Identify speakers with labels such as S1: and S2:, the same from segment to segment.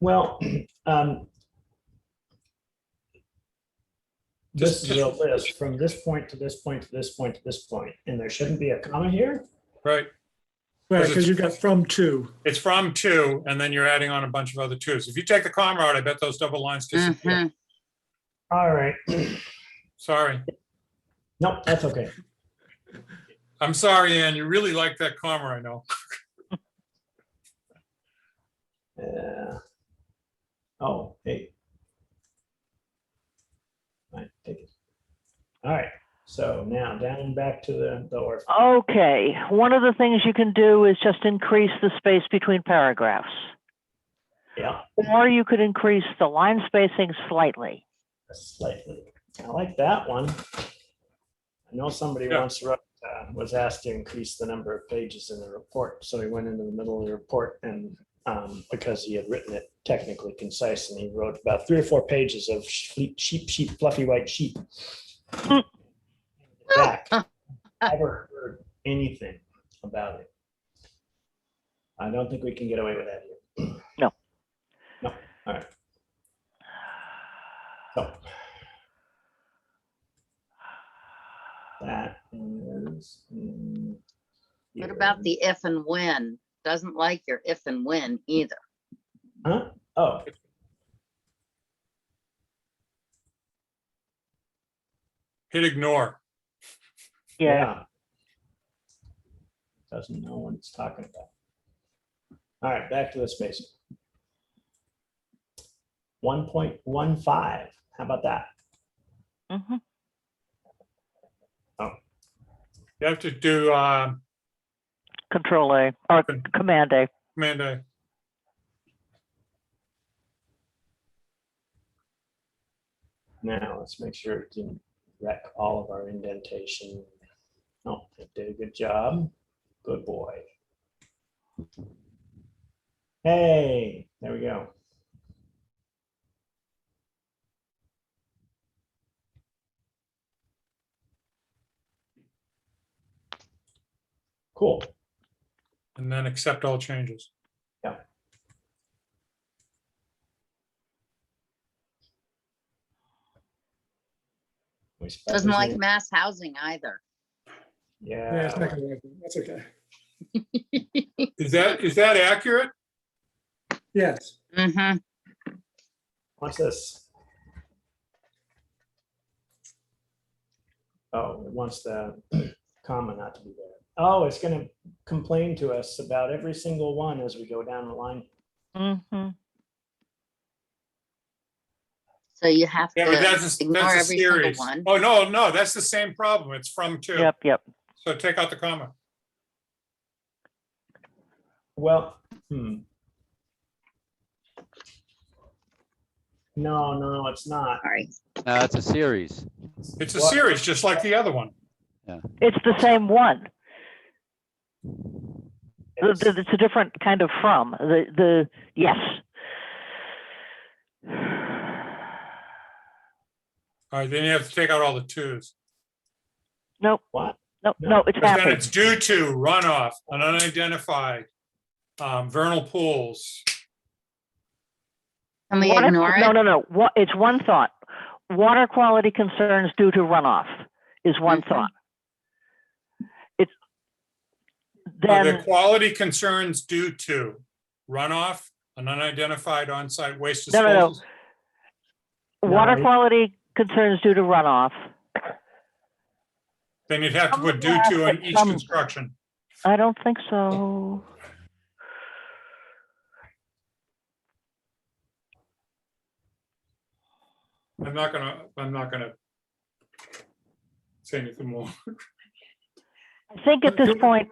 S1: Well, um, this
S2: Just-
S1: is a list from this point to this point to this point to this point, and there shouldn't be a comma here?
S2: Right,
S3: Right,
S2: 'Cause it's-
S3: because you got from two.
S2: it's from two, and then you're adding on a bunch of other twos. If you take the comma out, I bet those double lines disappear.
S4: Mhm.
S1: All right,
S2: Sorry.
S1: nope, that's okay.
S2: I'm sorry, Ann, you really like that comma, I know.
S1: Yeah. Uh, Oh, hey. Right, take it. All right, so now down back to the, the orphan.
S5: Okay, one of the things you can do is just increase the space between paragraphs.
S1: Yeah,
S5: Or you could increase the line spacing slightly.
S1: slightly. I like that one. I know somebody
S2: Yeah.
S1: once wrote, uh, was asked to increase the number of pages in the report, so he went into the middle of the report and um, because he had written it technically concise and he wrote about three or four pages of sheep, sheep, sheep, fluffy white sheep. Back, Never heard anything about it. I don't think we can get away with that here.
S5: No.
S1: No, all right. So. That is. mm,
S4: What
S1: here.
S4: about the if and when? Doesn't like your if and when either.
S1: Huh? Oh.
S2: Hit ignore.
S5: Yeah,
S1: Doesn't know what it's talking about. All right, back to the spacing. One point one five, how about that?
S5: mhm.
S2: You have to do, uh,
S5: Control A, or
S2: Con-
S5: Command A.
S2: command A.
S1: Now, let's make sure it didn't wreck all of our indentation. No, it did a good job. Good boy. Hey, there we go. Cool.
S2: and then accept all changes.
S1: We spelled
S4: Doesn't
S1: his
S4: like
S1: name.
S4: mass housing either.
S3: Yeah, it's
S1: Yeah,
S3: not gonna work. That's okay.
S2: Is that, is that accurate?
S3: Yes,
S4: Mhm.
S1: what's this? Oh, it wants the comma not to be there. Oh, it's gonna complain to us about every single one as we go down the line.
S5: Mhm.
S4: So you have
S2: Yeah, but that's,
S4: to
S2: a-
S4: ignore
S2: that's a
S4: every single
S2: series.
S4: one.
S2: Oh, no, no, that's the same problem. It's from two.
S5: Yep, yep.
S2: So take out the comma.
S1: Well, hmm. No, no, it's not.
S4: Sorry.
S6: No, it's a series.
S2: It's a
S1: What-
S2: series, just like the other one.
S5: It's the same one.
S1: It's-
S5: Th- th- It's a different kind of from, the, the, yes.
S2: All right, then you have to take out all the twos.
S5: Nope,
S1: What?
S5: nope,
S1: No.
S5: no, it's
S2: 'Cause then
S5: happy.
S2: it's due to runoff, an unidentified, um, vernal pools.
S4: Can we
S5: Water-
S4: ignore
S5: No,
S4: it?
S5: no, no. What, it's one thought. Water quality concerns due to runoff is one
S4: Mhm.
S5: thought. It's
S2: Are there
S5: then,
S2: quality concerns due to runoff, an unidentified on-site waste
S5: No, no, no.
S2: disposal?
S5: water
S1: No.
S5: quality concerns due to runoff.
S2: Then you'd have to put due
S5: Somewhere
S2: to
S5: has
S2: in
S5: to
S2: each
S5: come-
S2: construction.
S5: I don't think so.
S2: I'm not gonna, I'm not gonna say anything more.
S5: I think at this point,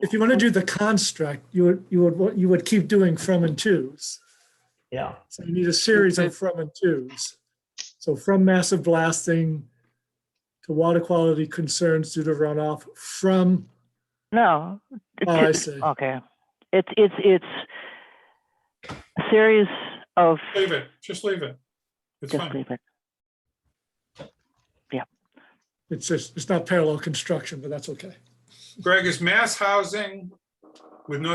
S3: if you want to do the construct, you would, you would, you would keep doing from and twos.
S1: Yeah,
S3: So you need a series of from and twos. So from massive blasting to water quality concerns due to runoff from,
S5: no.
S3: oh, I see.
S5: Okay. It's, it's, it's a series of,
S2: Leave it, just leave it. It's
S5: just
S2: fine.
S5: leave it.
S3: It's just, it's not parallel construction, but that's okay.
S2: Greg, is mass housing with no